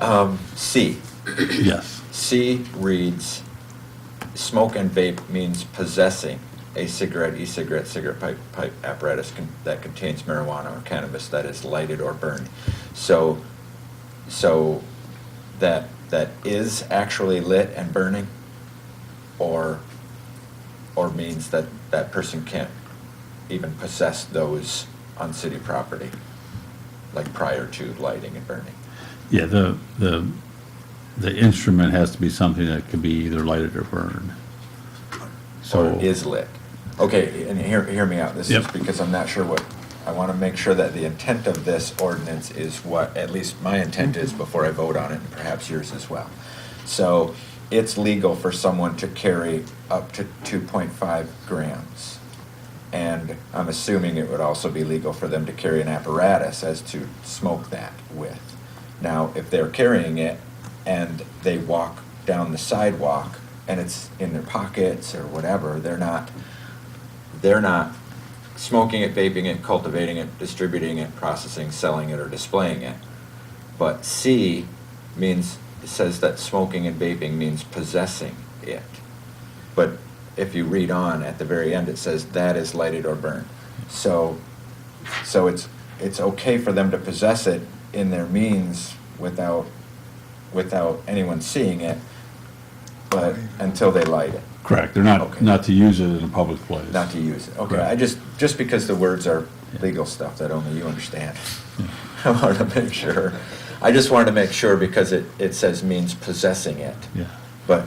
Um, C, Yes. C reads, smoke and vape means possessing a cigarette, e-cigarette, cigarette pipe, pipe apparatus con- that contains marijuana or cannabis that is lighted or burned. So, so that, that is actually lit and burning? Or, or means that that person can't even possess those on city property? Like prior to lighting and burning? Yeah, the, the, the instrument has to be something that can be either lighted or burned. or So, is lit. Okay, and hear, hear me out, this is Yep. because I'm not sure what, I want to make sure that the intent of this ordinance is what, at least my intent is before I vote on it, and perhaps yours as well. So, it's legal for someone to carry up to two point five grams. And I'm assuming it would also be legal for them to carry an apparatus as to smoke that with. Now, if they're carrying it and they walk down the sidewalk and it's in their pockets or whatever, they're not, they're not smoking it, vaping it, cultivating it, distributing it, processing, selling it, or displaying it. But C means, says that smoking and vaping means possessing it. But if you read on at the very end, it says that is lighted or burned. So, so it's, it's okay for them to possess it in their means without, without anyone seeing it, but until they light it, correct, they're not, Okay. not to use it in a public place. not to use it. Okay, Right. I just, just because the words are Yeah. legal stuff that only you understand. I wanted to make sure. I just wanted to make sure because it, it says means possessing it. Yeah, But,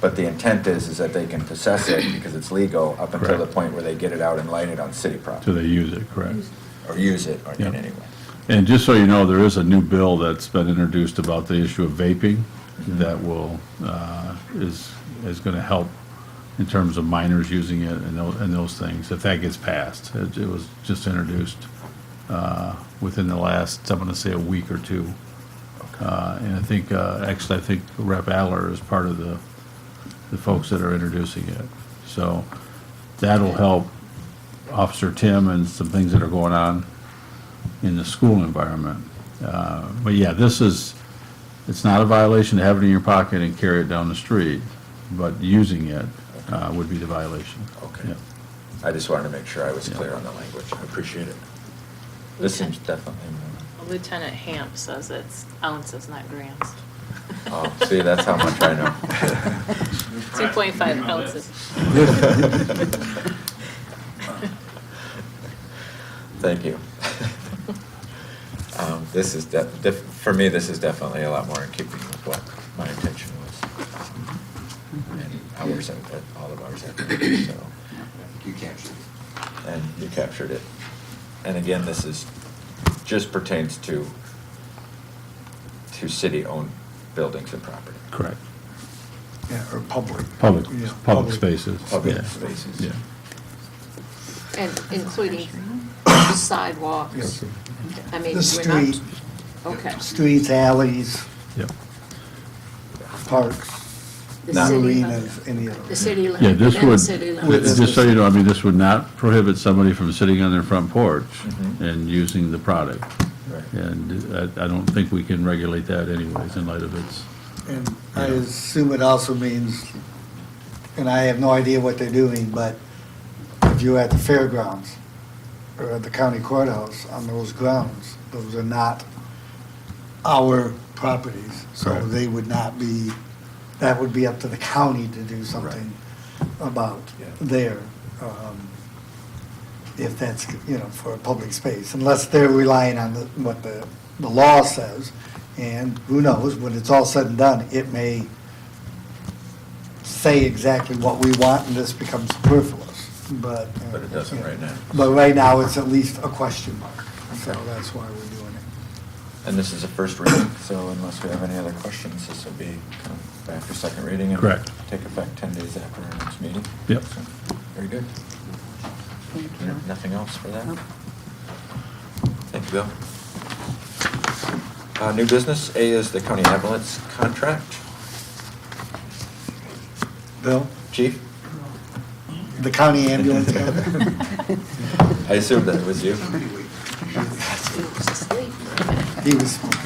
but the intent is, is that they can possess it because it's legal up until the Correct. point where they get it out and light it on city till property, they use it, correct. or use it, or in Yeah. any way. And just so you know, there is a new bill that's been introduced about the issue of vaping that will, uh, is, is going to help in terms of minors using it and those, and those things, if that gets passed. It it was just introduced uh, within the last, I'm going to say, a week or two. Uh, And I think, uh, actually, I think Rep. Adler is part of the, the folks that are introducing it. So that'll help Officer Tim and some things that are going on in the school environment. Uh, But yeah, this is, it's not a violation to have it in your pocket and carry it down the street, but using it uh, would be the violation. Okay. Yeah. I just wanted to make sure I was Yeah. clear on the language. I appreciate it. This seems definitely more. Lieutenant Hamp says it's ounces, not grams. Oh, see, that's how much I know. 2.5 ounces. Thank you. Um, This is, def- def- for me, this is definitely a lot more in keeping with what my intention was. And hours, I've- that- all of ours, I've been, so, You captured it. and you captured it. And again, this is, just pertains to, to city-owned buildings and property. Correct. Yeah, or public. Public, Yeah, public spaces. Public yeah. spaces. Yeah. And including sidewalks. Yes. I mean, The we're not, street, okay. streets, alleys, Yep. parks, The Not- city lim- arenas, any of The those. city limit. Yeah, this within the would, city With- limits. just so you know, I mean, this would not prohibit somebody from sitting on their front porch Mhm. and using the product. Right. And uh, I, I don't think we can regulate that anyways in light of its, And I assume it also means, and I have no idea what they're doing, but if you're at the fairgrounds or at the county courthouse on those grounds, those are not our properties. So Correct. they would not be, that would be up to the county to do something about Yeah. there. um, If that's, you know, for a public space, unless they're relying on the- what the, the law says. And who knows, when it's all said and done, it may say exactly what we want and this becomes superfluous, but. uh, But it doesn't right now. But right now, it's at least a question mark, so that's why we're doing it. And this is a first reading, so unless we have any other questions, this will be kind of back for second reading. and Correct. Take effect 10 days after our next meeting. Yep. So, Very good. Nothing else for that? Thank you, Bill. Uh, New business, A is the county ambulance contract. Bill, Chief, the county ambulance. I assumed that was you. He was asleep. He was,